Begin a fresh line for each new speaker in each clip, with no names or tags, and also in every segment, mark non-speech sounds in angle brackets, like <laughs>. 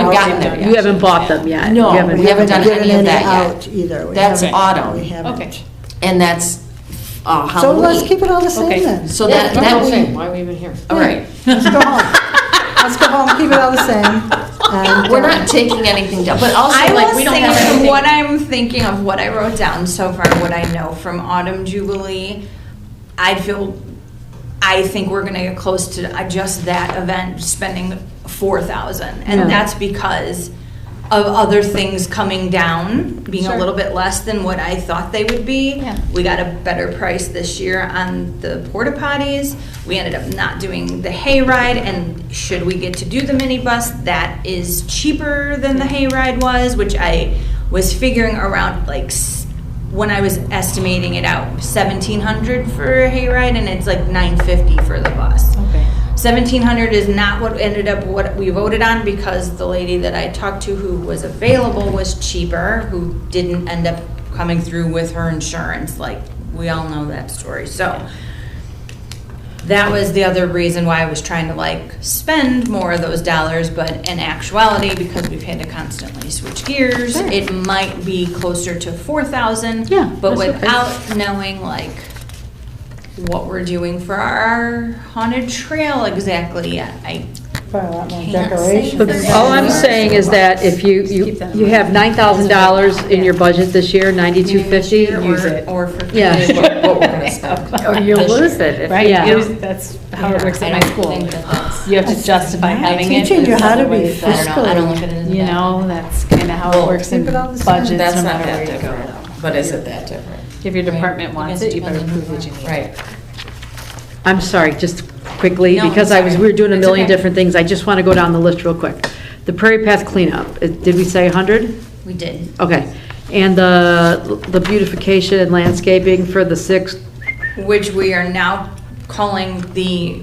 gotten there yet.
You haven't bought them yet.
No,
You haven't-
we haven't done
given
any of that yet.
out Either. We
That's
haven't-
autumn.
We
Okay.
haven't.
And that's uh,
So let's
Halloween.
keep it all the same
Okay. <laughs>
then.
So
That's
that,
what
that
I'm saying,
we,
why are we even here?
all right.
Let's go home. Let's go home, keep it all the same. and,
We're
uh,
not taking anything down, but also
I
like,
will
we don't
sing
have
from
anything.
what I'm thinking of what I wrote down so far, what I know from Autumn Jubilee. I feel, I think we're gonna get close to uh, just that event, spending four thousand.
Yeah.
And that's because of other things coming down, being a
Sure.
little bit less than what I thought they would be.
Yeah.
We got a better price this year on the porta potties. We ended up not doing the hayride, and should we get to do the minibus, that is cheaper than the hayride was, which I was figuring around like s- when I was estimating it out, seventeen hundred for a hayride, and it's like nine fifty for the bus.
Okay.
Seventeen hundred is not what ended up what we voted on because the lady that I talked to who was available was cheaper, who didn't end up coming through with her insurance, like, we all know that story, so. That was the other reason why I was trying to like spend more of those dollars, but in actuality, because we've had to constantly switch gears,
Sure.
it might be closer to four thousand.
Yeah,
But
that's okay.
without knowing like what we're doing for our haunted trail exactly yet. I,
Probably a lot more
Can't say
decorations.
But all I'm saying is that if you, you, you have nine thousand dollars in your budget this year, ninety-two fifty.
Or-
Use it.
Or for.
Yeah.
what- what we're
<laughs>
gonna
Or
spend.
you'll lose it. if-
Right,
yeah.
It was- that's how it works
I
at my
don't
school.
think that <laughs> that's-
You have to justify having it.
Teaching you
there's
how to
other
be
ways that-
I don't know, I don't look at it as a
You
bad-
know, that's kind of how it works in
Keep it all the
budgets,
same.
no
That's not
matter
that
where you
different,
go.
but is it that different?
If your department
Right.
wants it, you better
Depends on
prove that you need it.
Right.
I'm sorry, just quickly,
No,
because I was, we were doing a
it's
million
okay.
different things, I just want to go down the list real quick. The Prairie Path cleanup, uh, did we say hundred?
We did.
Okay. And the, the beautification and landscaping for the sixth
Which we are now calling the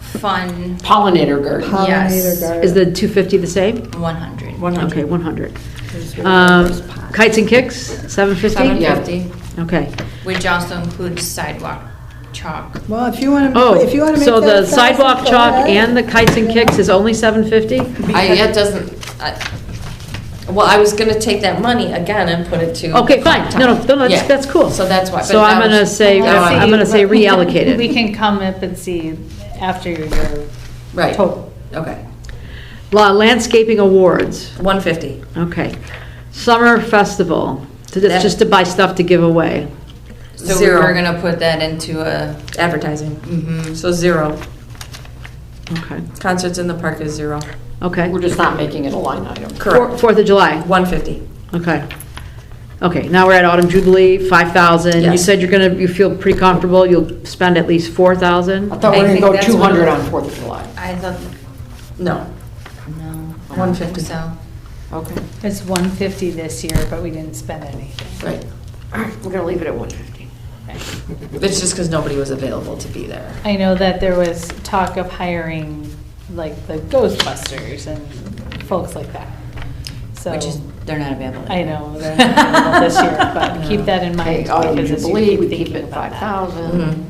fun,
Pollinator garden.
yes.
Pollinator garden.
is the two fifty the same?
one hundred.
Okay, one hundred. Um, kites and kicks, seven fifty?
Seven
Yeah.
fifty.
Okay.
Which also includes sidewalk chalk.
Well, if you want to,
Oh,
if you want to make that.
so the
a thousand,
sidewalk
go
chalk
ahead.
and the kites and kicks is only seven fifty?
I, it doesn't, I, well, I was gonna take that money again and put it to.
Okay, fine. No, no, no, that's,
Yeah.
that's cool.
So that's why.
So
but
I'm
that
gonna
was-
say,
No,
See,
I'm gonna say
but we can-
<laughs>
reallocate it.
We can come up and see after your
Right,
total.
okay,
La- Landscaping awards,
one fifty.
okay. Summer festival, to- that's
That-
just to buy stuff to give away.
So we
Zero.
were gonna put that into a,
Advertising,
mhm.
so zero.
Okay,
Concerts in the park is zero.
okay.
We're just not making it a line item.
Four- Fourth of July,
One fifty.
okay. Okay, now we're at Autumn Jubilee, 5,000. You
Yes.
said you're gonna, you feel pretty comfortable, you'll spend at least 4,000?
I thought we
I
were going
think
to go
that's what
200
it-
on Fourth of July.
I thought, no,
No,
I don't think
150.
so.
Okay.
It's 150 this year, but we didn't spend anything.
right.
All right, we're going to leave it at 150.
It's just because nobody was available to be there.
I know that there was talk of hiring like the Ghostbusters and folks like that. So,
Which is, they're not available.
I know, they're not available this year, but <laughs> keep that in mind
Okay, Autumn
because as you
Jubilee, we
keep
keep
thinking
it
about that
Mm-hmm.
5,000.
Mm-hmm.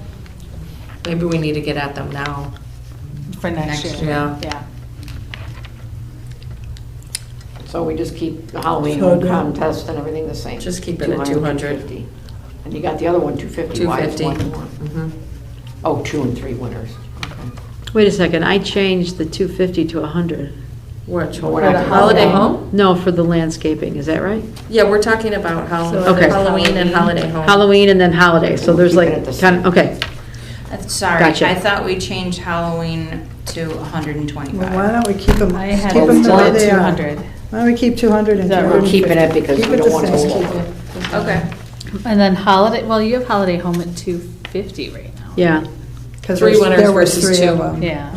Maybe we need to get at them now.
for next
Next
year.
year.
Yeah.
So we just keep the Halloween
So good.
contest and everything the same.
Just keep it at 200.
250. And you got the other one, 250, why is
250.
one more?
Mm-hmm.
Oh, two and three winners.
Wait a second, I changed the 250 to 100.
Which
Well, we're
one?
not
The
gonna-
Holiday home?
No, for the landscaping, is that right?
Yeah, we're talking about Hall-
So
Okay.
Halloween and Holiday home.
Halloween and then holiday, so
We'll
there's
keep it
like,
at the
kind of,
same.
okay.
Uh, Sorry,
Gotcha.
I thought we changed Halloween to
Well, why
125.
don't we keep them,
I
keep
had
them
it
the
at
way they are.
200.
Why don't we keep 200 and
That we're
250?
keeping it because
Keep
we
it
don't
the
want to
same.
overlap.
Okay.
And then holiday, well, you have holiday home at 250 right now.
Yeah,
'Cause
Three
there's-
winners
there were
versus
three of
two.
them.
Yeah.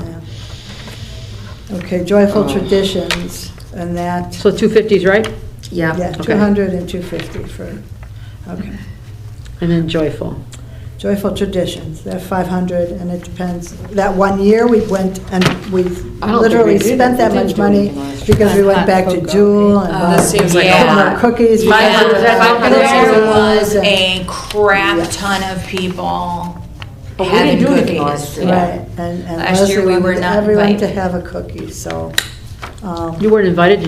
Okay, joyful
Oh.
traditions and that,
so 250's right?
yeah,
Yeah.
200 and 250 for, okay.
And then joyful.
Joyful traditions, they're 500 and it depends, that one year we went and we
we
literally
did.
spent
We
that
didn't
much
do
money
anything last year.
because we went
Hot
back to
cocoa.
Jewel and.
Oh,
bought
this seems like a
chocolate
lot.
Cookies.
My-
because we were
that's
back
not
to
gonna
Jewel
There was
and-
a crap ton of people
But we didn't
having
do anything
cookies.
last year.
Right, and and
Last year
Leslie
we were
wanted
not
everyone to
invited.
have a cookie, so. um,
You weren't invited to